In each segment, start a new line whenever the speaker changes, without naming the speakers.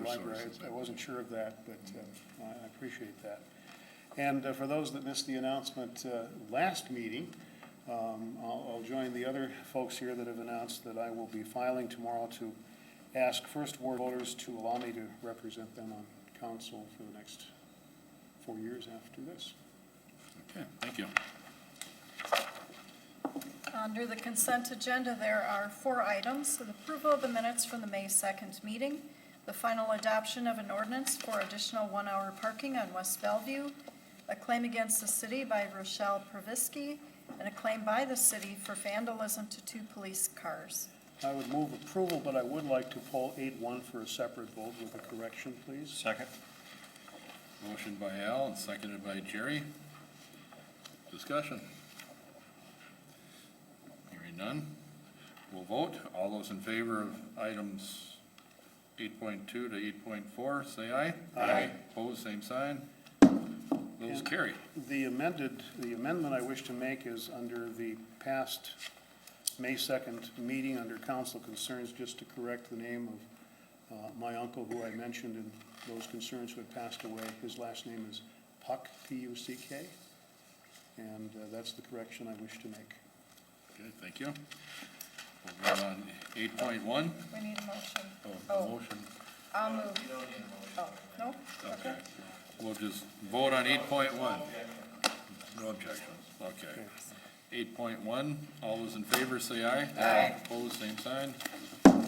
library. I wasn't sure of that, but uh, I I appreciate that. And uh, for those that missed the announcement uh, last meeting, um, I'll I'll join the other folks here that have announced that I will be filing tomorrow to ask First Ward voters to allow me to represent them on council for the next four years after this.
Okay, thank you.
Under the consent agenda, there are four items. The approval of the minutes from the May 2nd meeting, the final adoption of an ordinance for additional one-hour parking on West Bellevue, a claim against the city by Rochelle Provisky, and a claim by the city for vandalism to two police cars.
I would move approval, but I would like to poll 8-1 for a separate vote with a correction, please.
Second.
Motion by Al and seconded by Jerry. Discussion. Hearing none. We'll vote. All those in favor of items 8.2 to 8.4, say aye.
Aye.
Opposed, same sign. Those
And-
carry.
The amended, the amendment I wish to make is under the past May 2nd meeting under council concerns, just to correct the name of uh, my uncle who I mentioned in those concerns who had passed away. His last name is Puck, P-U-C-K. And uh, that's the correction I wish to make.
Okay, thank you. We'll go on 8.1.
We need a motion.
Oh, motion.
I'll move. Oh, no? Okay.
We'll just vote on 8.1. No objections, okay. 8.1, all those in favor, say aye.
Aye.
Opposed, same sign.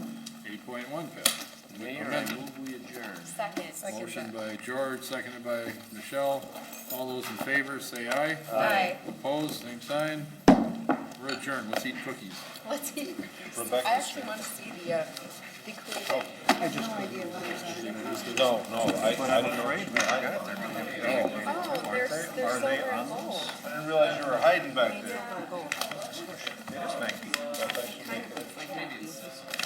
8.1 passed.
Mayor, I move we adjourn.
Second.
Motion by George, seconded by Michelle. All those in favor, say aye.
Aye.
Opposed, same sign. We're adjourned, let's eat cookies.
Let's see.
Rebecca's
I actually want to see the, uh, the clue. I have no idea what it is.
No, no, I, I didn't know.
Oh, there's, there's silver and gold.
I didn't realize you were hiding back
Silver and gold.
Thank you.